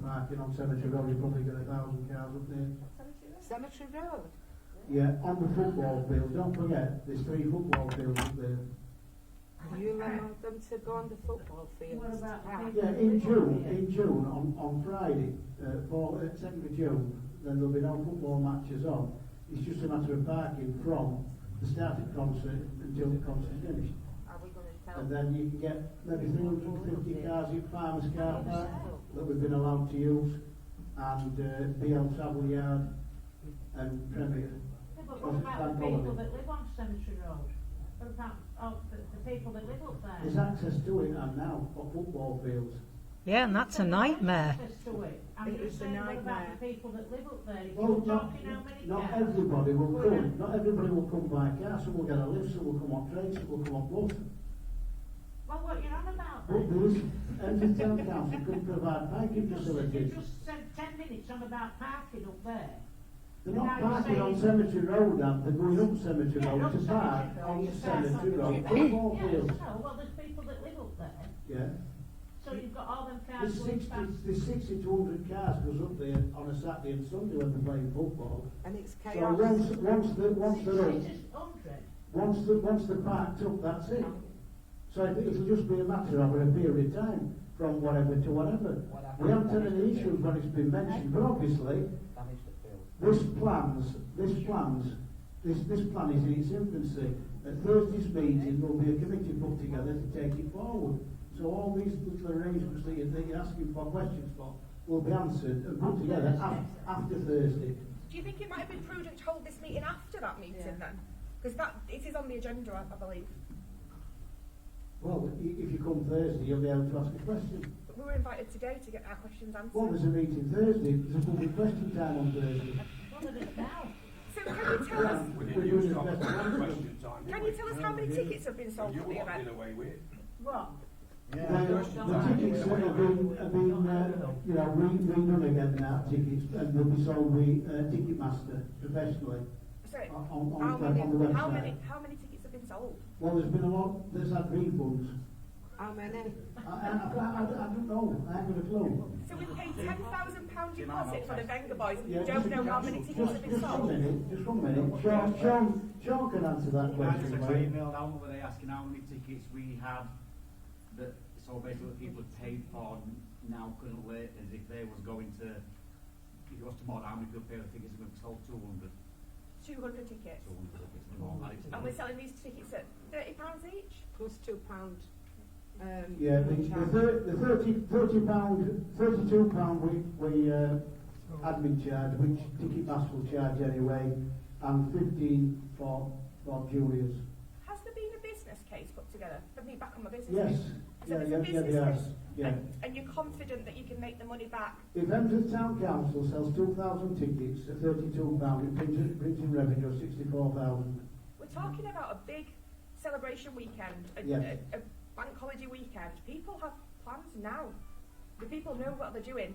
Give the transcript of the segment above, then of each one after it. marking on Cemetery Road, you're probably got a thousand cars up there. Cemetery Road. Yeah, on the football field, don't forget, there's three football fields up there. You allowed them to go on the football field. Oh What about the Ah. people- Yeah, in June, in June, on, on Friday, uh, for, uh, second of June, then there'll be no football matches on. It's just a matter of parking from the start of the concert until the concert's finished. Are we going to tell And them? then you can get maybe three hundred and fifty cars in Farmer's Car Park that we've been allowed to use, and, uh, BL Travel Yard, and Premier. Yeah, but what about the people that live on Cemetery Road? What about oh, the, the people that live up there? There's access to it and now for football fields. Yeah, and that's a nightmare. Access to it. I'm It just is a saying, what nightmare. about the people that live up there? If Well, you're not, talking how many not cars- everybody will Well, come, not everybody will come by car, some will get a lift, some will come on trains, some will come on bus. Well, what you're on about But then? there is, every town council can provide parking You just, you facilities. just said ten minutes on about parking up there. They're not parking on Cemetery Road, and they're going up Cemetery Yeah, Road up to park Cemetery Road, on to park on Cemetery the Road road. football Yeah, fields. so, well, there's people that live up there, Yeah, so you've got all them cars there's going sixty, past. there's sixty to hundred cars goes up there on a Saturday and Sunday when they're playing football. And it's So chaos. once, once the, once Six- they're up, six is hundred. once the, once the park's up, that's it. So it- it'll just be a matter of a period of time, from whatever to whatever. We haven't had any issues when it's been mentioned, but obviously, damage the field. this plans, this plans, this, this plan is in its infancy. At Thursday's meeting, there'll be a committee put together to take it forward. So all these little arrangements that you're, that you're asking for questions for will be answered and put together af- after Thursday. Do you think it might have been prudent to hold this meeting after that meeting Yeah. then? Because that it is on the agenda, I, I believe. Well, i- if you come Thursday, you'll be able to ask a question. But we were invited today to get our questions answered. Well, there's a meeting Thursday, there's a public question time on Thursday. Well, there is now. So can you tell us? Yeah. We didn't use top questions on Can you tell us how many tickets have been sold You for the lot did event? away with. What? Well, the tickets that have been, have been, uh, you know, we, we run again now, tickets, and they'll be sold by, uh, Ticketmaster professionally. Sorry, on- on- how on the- on the many? How website. many? How many tickets have been sold? Well, there's been a lot that's had refunds. How many? I, I, I, I I don't know, I haven't got a clue. So we paid ten thousand pound deposit for the Venga Boys, and Yeah, we don't just- know how many tickets just- have been Just one sold. minute, just one minute, Sean, Sean, Sean can answer that I just question, got right? emailed out where they asking how many tickets we had that so basically people had paid for now currently as if they was going to if it was tomorrow how many people pay the tickets we've sold 200 Two hundred tickets, 200 tickets and all that it's and we're selling these tickets at thirty pounds each. Plus two pound. Um, Yeah, the, the charge. thir- the thirty, thirty pound, thirty-two pound we, we, uh, admin charge, which Ticketmaster will charge anyway, and fifteen for, for juniors. Has there been a business case put together? Let me back on my business. Yes, case. So yeah, there's yeah, a yeah, business yes, case, yeah. and, and you're confident that you can make the money back If Emsworth Town Council sells two thousand tickets at thirty-two pound, it brings in, brings in revenue of sixty-four thousand. We're talking about a big celebration weekend, a, Yes. a, a bank holiday weekend. People have plans now. The people know what they're doing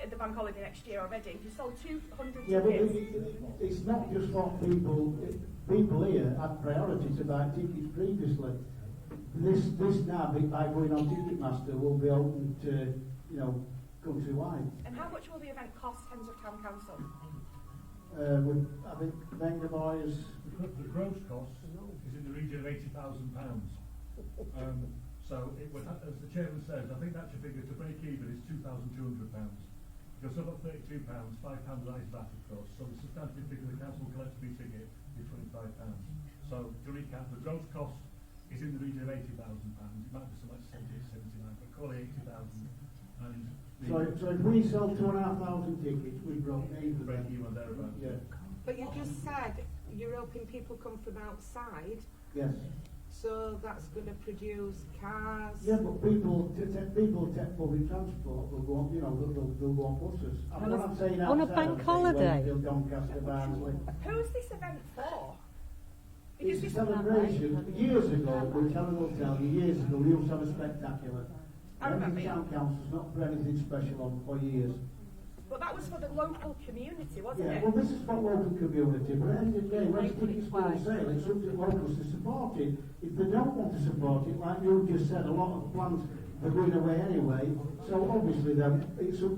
at the bank holiday next year already. You sold 200 Yeah, but it, tickets. it, it's not just what people, it, people here had priority to buy tickets previously. This, this now, be- by going on Ticketmaster, will be open to, you know, countrywide. And how much will the event cost, Hens of Town Council? Uh, with, I think, Venga Boys, The gro- the gross cost is in the region of eighty thousand pounds. Um, so it would, ha- as the chairman says, I think that's your figure, to break even is two thousand two hundred pounds. You're still at thirty-two pounds, five pounds that is VAT of course, so the substantive figure the council collects per ticket is twenty-five pounds. So to recap, the gross cost is in the region of eighty thousand pounds, it might be so much seventy-eight, seventy-nine, but call it eighty thousand. And the so, so if we sell two and a half thousand tickets, we broke even. break even thereabouts. Yeah, But you just said you're hoping people come from outside, yes. so that's going to produce cars. Yeah, but people, t- t- people take public transport, they'll go on, you know, they'll, they'll, they'll go on buses. And what I'm saying On a outside, bank I'm saying holiday. Wakefield, Doncaster, Barnsley. Who's this event for? Because It's a this, celebration. Years ago, which Helen will tell you, years ago, we used to have a spectacular. I remember, Every town council's not done anything special on for years. but that was for the local community, wasn't Yeah, it? well, this is for local community, but at the end of the day, when it's tickets go on sale, it's up to locals to support it. If they don't want to support it, like you just said, a lot of plans are going away anyway, so obviously then, it's up